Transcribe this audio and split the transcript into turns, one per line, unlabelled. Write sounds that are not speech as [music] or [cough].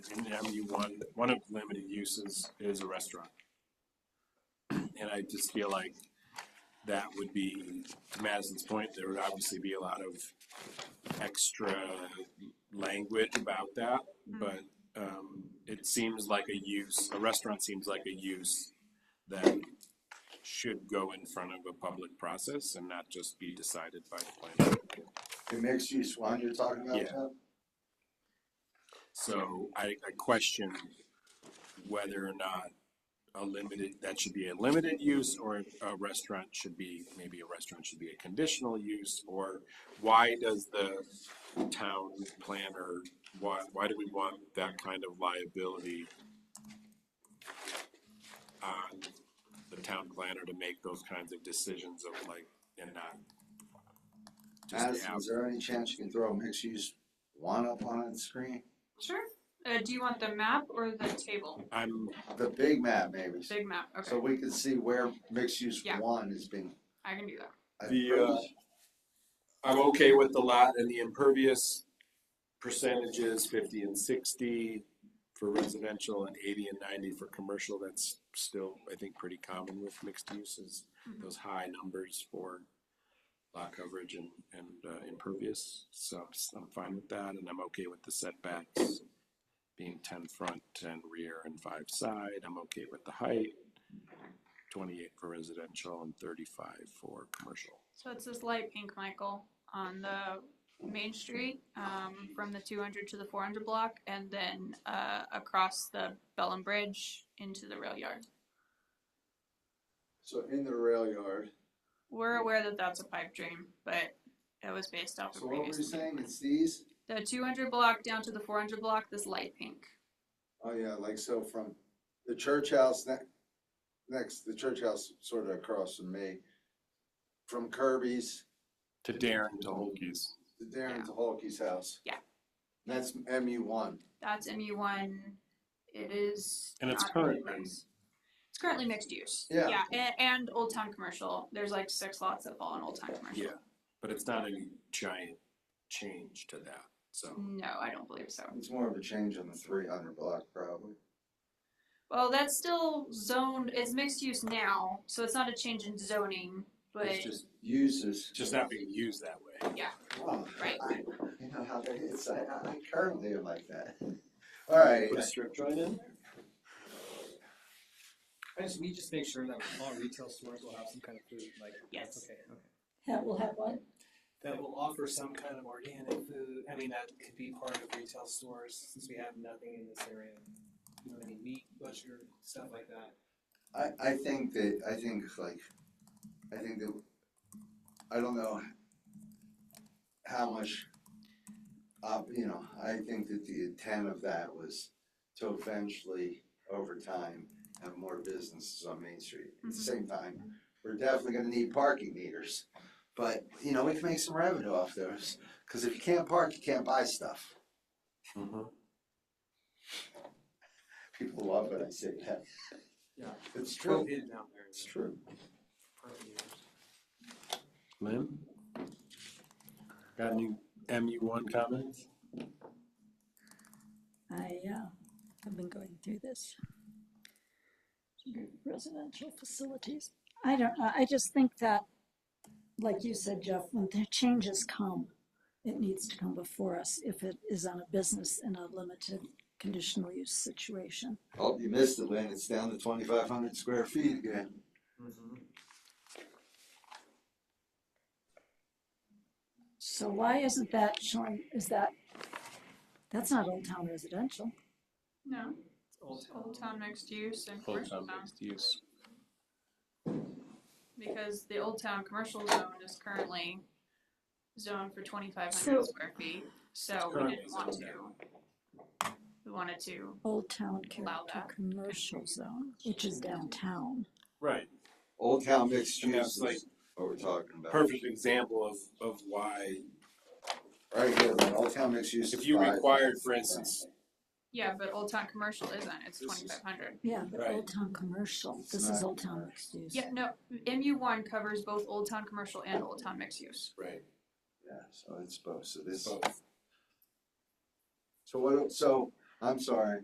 in MU one, one of the limited uses is a restaurant. And I just feel like that would be, to Madison's point, there would obviously be a lot of extra language about that, but um, it seems like a use, a restaurant seems like a use that should go in front of a public process and not just be decided by the planning. board.
The mixed use one you're talking about,
Yeah.
Jeff?
So I, I question whether or not a limited, that should be a limited use or a restaurant should be, maybe a restaurant should be a conditional use or why does the town planner, why, why do we want that kind of liability on the town planner to make those kinds of decisions of like, and not just
Madison,
have,
is there any chance you can throw mixed use one up on the screen?
Sure. Uh, do you want the map or the table?
I'm,
The big map maybe,
Big map. Okay,
so we can see where mixed use
Yeah.
one is being.
I can do that.
I'm
The,
pretty-
uh, I'm okay with the lot and the impervious percentages, fifty and sixty for residential and eighty and ninety for commercial. That's still, I think, pretty common with mixed uses,
Mhm.
those high numbers for lot coverage and, and uh, impervious. So I'm s- I'm fine with that and I'm okay with the setbacks being ten front, ten rear and five side. I'm okay with the height, twenty-eight for residential and thirty-five for commercial.
So it's this light pink, Michael, on the main street um, from the 200 to the 400 block, and then uh, across the Bellum Bridge into the rail yard.
So in the rail yard,
We're aware that that's a pipe dream, but it was based off
so
of
what were
previous.
you saying, it's these?
The 200 block down to the 400 block, this light pink.
Oh yeah, like so from the church house next, next, the church house sort of across from me. From Kirby's
To Darren, to Holkeys.
to Darren to Holkey's house.
Yeah.
That's MU one.
That's MU1. It is.
And it's
not
current.
really mixed. It's currently mixed use.
Yeah.
And, and Old Town Commercial. There's like six lots that fall in Old Town Commercial.
Yeah, but it's not a giant change to that, so.
No, I don't believe so.
It's more of a change on the three hundred block probably.
Well, that's still zoned, it's mixed use now, so it's not a change in zoning, but
It's just uses.
It's just not being used that way.
Oh,
Right.
I, you know how that is. I, I I currently am like that. [laughs] All right.
Put a strip joint in?
I just, we just make sure that all retail stores will have some kind of food, like, that's
yes.
okay, okay.
That will have what?
That will offer some kind of organic food, I mean, that could be part of retail stores, since we have nothing in this area. You know, any meat, butcher, stuff like that.
I, I think that, I think like, I think that, I don't know how much, uh, you know, I think that the intent of that was to eventually, over time, have more businesses on Main Street. At the same time, we're definitely gonna need parking meters, but, you know, we can make some revenue off those, cause if you can't park, you can't buy stuff. People love when I say that.
Yeah.
It's true,
Prohibited down there.
it's true.
Prohibited.
Lynn? Got any MU one comments?
I, uh, have been going through this. Residential facilities. I don't, know. I just think that, like you said, Jeff, when the changes come, it needs to come before us if it is on a business in a limited conditional use situation.
Oh, you missed it, Lynn. It's down to twenty-five hundred square feet again.
Mm-hmm.
So why isn't that showing, is that, that's not Old Town Residential.
No,
It's Old Town.
Old Town mixed use and
Full
commercial
time
zone,
mixed use.
because the Old Town Commercial Zone is currently zoned for twenty-five hundred
So-
square feet, so we
currently
didn't want
zoned
to. We wanted to,
Old Town
Allow
Character
that.
Commercial Zone, which is downtown.
Right,
Old town mixed
And
use
that's
is
like-
what we're talking about.
perfect example of, of why,
Right here, Lynn. Old town mixed use.
if
is
you
five.
required, for instance,
yeah, but Old Town Commercial isn't, it's
This is-
twenty-five hundred.
Yeah, but
Right.
Old Town Commercial, this is Old Town mixed use.
Yeah, no, MU one covers both Old Town Commercial and Old Town mixed use.
right,
Yeah, so it's both. So this.
both.
So what? So I'm sorry.